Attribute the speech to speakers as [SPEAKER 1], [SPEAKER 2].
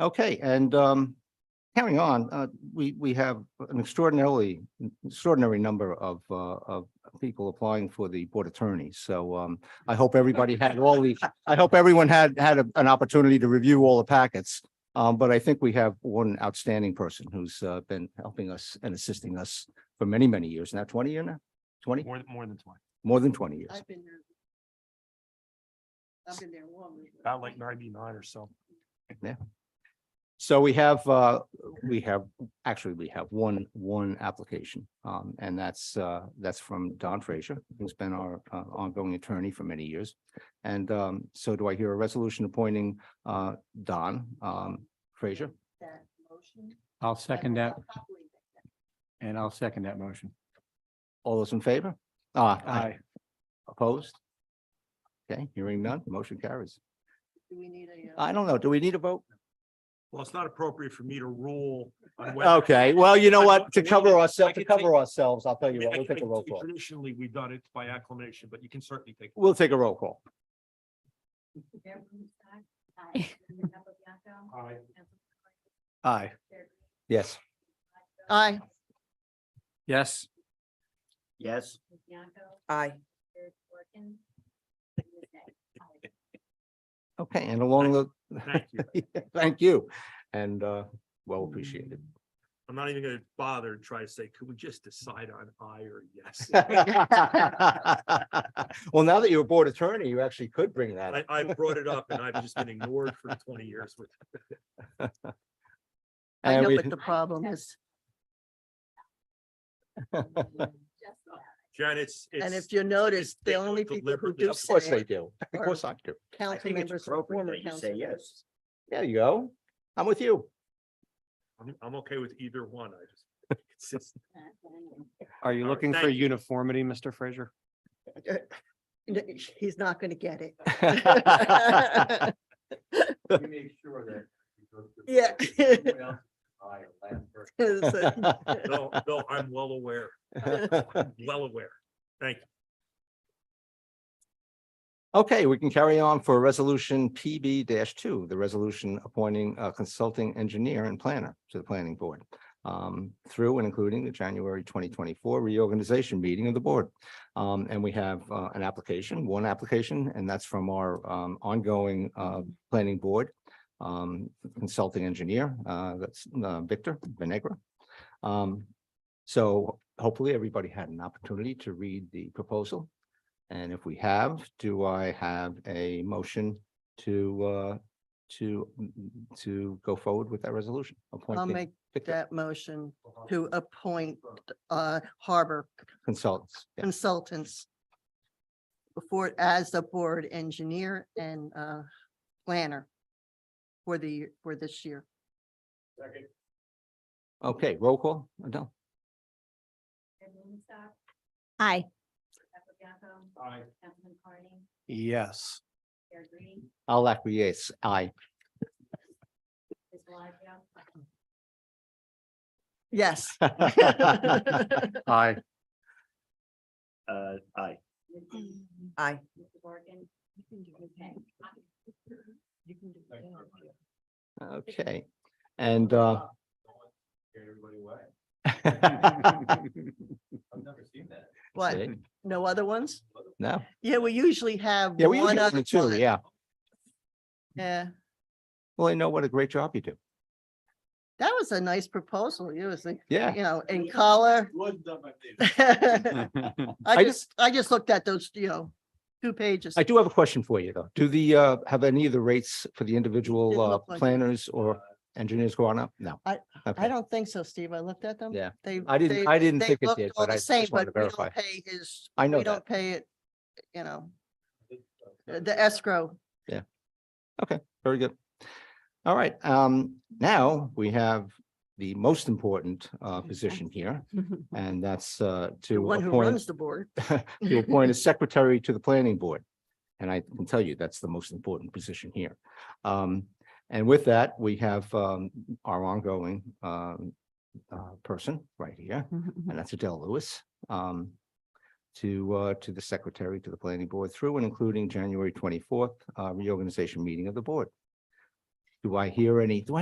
[SPEAKER 1] Okay, and um, carrying on, uh, we, we have an extraordinarily, extraordinary number of, uh, of people applying for the board attorney. So um, I hope everybody had all the, I hope everyone had, had a- an opportunity to review all the packets. Um, but I think we have one outstanding person who's uh, been helping us and assisting us for many, many years. Now twenty year now, twenty,
[SPEAKER 2] More, th- more than twenty,
[SPEAKER 1] more than twenty years.
[SPEAKER 3] I've been there. I've been there longer.
[SPEAKER 2] about like ninety-nine or so.
[SPEAKER 1] So we have, uh, we have, actually, we have one, one application. Um, and that's, uh, that's from Don Frazier, who's been our uh, ongoing attorney for many years. And, um, so do I hear a resolution appointing, uh, Don, um, Frazier?
[SPEAKER 3] That motion.
[SPEAKER 4] I'll second that
[SPEAKER 3] I'll probably make that.
[SPEAKER 4] and I'll second that motion.
[SPEAKER 1] All those in favor? Uh,
[SPEAKER 4] Aye.
[SPEAKER 1] opposed? Okay, hearing none, motion carries.
[SPEAKER 3] Do we need a? uh,
[SPEAKER 1] I don't know, do we need a vote?
[SPEAKER 2] Well, it's not appropriate for me to rule on whether.
[SPEAKER 1] Okay, well, you know
[SPEAKER 2] I
[SPEAKER 1] what,
[SPEAKER 2] don't-
[SPEAKER 1] to
[SPEAKER 2] we
[SPEAKER 1] cover
[SPEAKER 2] can-
[SPEAKER 1] ourselves,
[SPEAKER 2] I
[SPEAKER 1] to
[SPEAKER 2] can take-
[SPEAKER 1] cover ourselves, I'll tell
[SPEAKER 2] I
[SPEAKER 1] you
[SPEAKER 2] mean,
[SPEAKER 1] what, we'll
[SPEAKER 2] I-
[SPEAKER 1] take a roll
[SPEAKER 2] I-
[SPEAKER 1] call.
[SPEAKER 2] Traditionally, we've done it by acclamation, but you can certainly take.
[SPEAKER 1] We'll take a roll call.
[SPEAKER 3] Mayor Bruce, aye. Aye. Member Capabianco,
[SPEAKER 2] Aye.
[SPEAKER 3] Councilman Clark,
[SPEAKER 4] Aye.
[SPEAKER 3] Chair Green,
[SPEAKER 1] Yes.
[SPEAKER 5] Aye.
[SPEAKER 4] Yes.
[SPEAKER 1] Yes.
[SPEAKER 3] Ms. Bianco,
[SPEAKER 5] Aye.
[SPEAKER 3] Chair Dorkin, Ms. Day. Aye.
[SPEAKER 1] Okay, and along the,
[SPEAKER 2] Thank you.
[SPEAKER 1] Thank you, and uh, well appreciated.
[SPEAKER 2] I'm not even gonna bother and try to say, could we just decide on aye or yes?
[SPEAKER 1] Well, now that you're a board attorney, you actually could bring that.
[SPEAKER 2] I,
[SPEAKER 1] up.
[SPEAKER 2] I brought it up and I've just been ignored for twenty years with.
[SPEAKER 5] I
[SPEAKER 1] And
[SPEAKER 5] know
[SPEAKER 1] we-
[SPEAKER 5] what the problem is.
[SPEAKER 3] Just that.
[SPEAKER 2] Jen, it's, it's.
[SPEAKER 5] And if you notice, the
[SPEAKER 2] they
[SPEAKER 5] only
[SPEAKER 2] don't
[SPEAKER 5] people who
[SPEAKER 2] deliberately-
[SPEAKER 5] do
[SPEAKER 1] Of course
[SPEAKER 5] say
[SPEAKER 1] they
[SPEAKER 5] it
[SPEAKER 1] do. Of course I do.
[SPEAKER 5] are council members, or former council members.
[SPEAKER 1] There you go. I'm with you.
[SPEAKER 2] I'm, I'm okay with either one. I just. it's just-
[SPEAKER 4] Are you
[SPEAKER 2] All right,
[SPEAKER 4] looking for
[SPEAKER 2] thank you.
[SPEAKER 4] uniformity, Mr. Fraser?
[SPEAKER 5] N- He's not going to get it. Yeah. So,
[SPEAKER 2] No, no, I'm well aware, well aware. Thank you.
[SPEAKER 1] Okay, we can carry on for resolution PB two, the resolution appointing a consulting engineer and planner to the planning board. um, through and including the January twenty twenty-four reorganization meeting of the board. Um, and we have uh, an application, one application, and that's from our um, ongoing uh, planning board. um, consulting engineer, uh, that's uh, Victor Venegra. Um, so hopefully everybody had an opportunity to read the proposal. And if we have, do I have a motion to, uh, to, mm, to go forward with that resolution?
[SPEAKER 5] I'll
[SPEAKER 1] appointing
[SPEAKER 5] make
[SPEAKER 1] Victor
[SPEAKER 5] that motion to appoint uh, harbor
[SPEAKER 1] Consultants.
[SPEAKER 5] Mm.
[SPEAKER 1] yeah.
[SPEAKER 5] consultants before, as a board engineer and uh, planner for the, for this year.
[SPEAKER 1] Okay, roll call. No,
[SPEAKER 3] Chair Green,
[SPEAKER 6] Aye.
[SPEAKER 3] Capabianco,
[SPEAKER 2] Aye.
[SPEAKER 3] Councilman Carney,
[SPEAKER 4] Yes.
[SPEAKER 3] Chair Green,
[SPEAKER 1] I'll acquiesce. Aye.
[SPEAKER 3] Ms. Blige,
[SPEAKER 5] Yes.
[SPEAKER 4] Aye.
[SPEAKER 2] Uh, aye.
[SPEAKER 5] Aye.
[SPEAKER 3] Mr. Morgan. You can do it. You can do it.
[SPEAKER 1] Okay, and, uh,
[SPEAKER 2] Everybody away. I've never seen that.
[SPEAKER 5] What?
[SPEAKER 1] see?
[SPEAKER 5] No other ones?
[SPEAKER 1] no,
[SPEAKER 5] Yeah, we usually have.
[SPEAKER 1] yeah, we
[SPEAKER 5] one
[SPEAKER 1] usually have
[SPEAKER 5] other
[SPEAKER 1] the two,
[SPEAKER 5] one.
[SPEAKER 1] yeah.
[SPEAKER 5] Yeah,
[SPEAKER 1] Well, I know what a great job you do.
[SPEAKER 5] that was a nice proposal. It was, like,
[SPEAKER 1] Yeah,
[SPEAKER 5] you know, in color. I
[SPEAKER 1] I
[SPEAKER 5] just, I just looked at those, you know, two pages.
[SPEAKER 1] I do have a question for you, though. Do the, uh, have any of the rates for the individual,
[SPEAKER 5] Didn't
[SPEAKER 1] uh,
[SPEAKER 5] look like it.
[SPEAKER 1] planners or engineers gone up? No.
[SPEAKER 5] I-
[SPEAKER 1] Okay.
[SPEAKER 5] I don't think so, Steve. I looked at them.
[SPEAKER 1] Yeah.
[SPEAKER 5] They.
[SPEAKER 1] I
[SPEAKER 5] they-
[SPEAKER 1] didn't, I didn't
[SPEAKER 5] they
[SPEAKER 1] think it
[SPEAKER 5] looked
[SPEAKER 1] did,
[SPEAKER 5] all
[SPEAKER 1] but
[SPEAKER 5] the
[SPEAKER 1] I
[SPEAKER 5] same,
[SPEAKER 1] just wanted to
[SPEAKER 5] but we don't
[SPEAKER 1] verify.
[SPEAKER 5] Pay his.
[SPEAKER 1] I know
[SPEAKER 5] We
[SPEAKER 1] that.
[SPEAKER 5] don't pay it, you know, uh, the escrow.
[SPEAKER 1] Very good. All right, um, now we have the most important, uh, position here, and that's, uh,
[SPEAKER 5] The
[SPEAKER 1] to
[SPEAKER 5] one who
[SPEAKER 1] appoint.
[SPEAKER 5] runs the board.
[SPEAKER 1] to appoint a secretary to the planning board. And I can tell you, that's the most important position here. Um, and with that, we have, um, our ongoing, um, uh, person right here, and that's Adele Lewis, um, to, uh, to the secretary, to the planning board through and including January twenty-fourth, uh, reorganization meeting of the board. Do I hear any, do I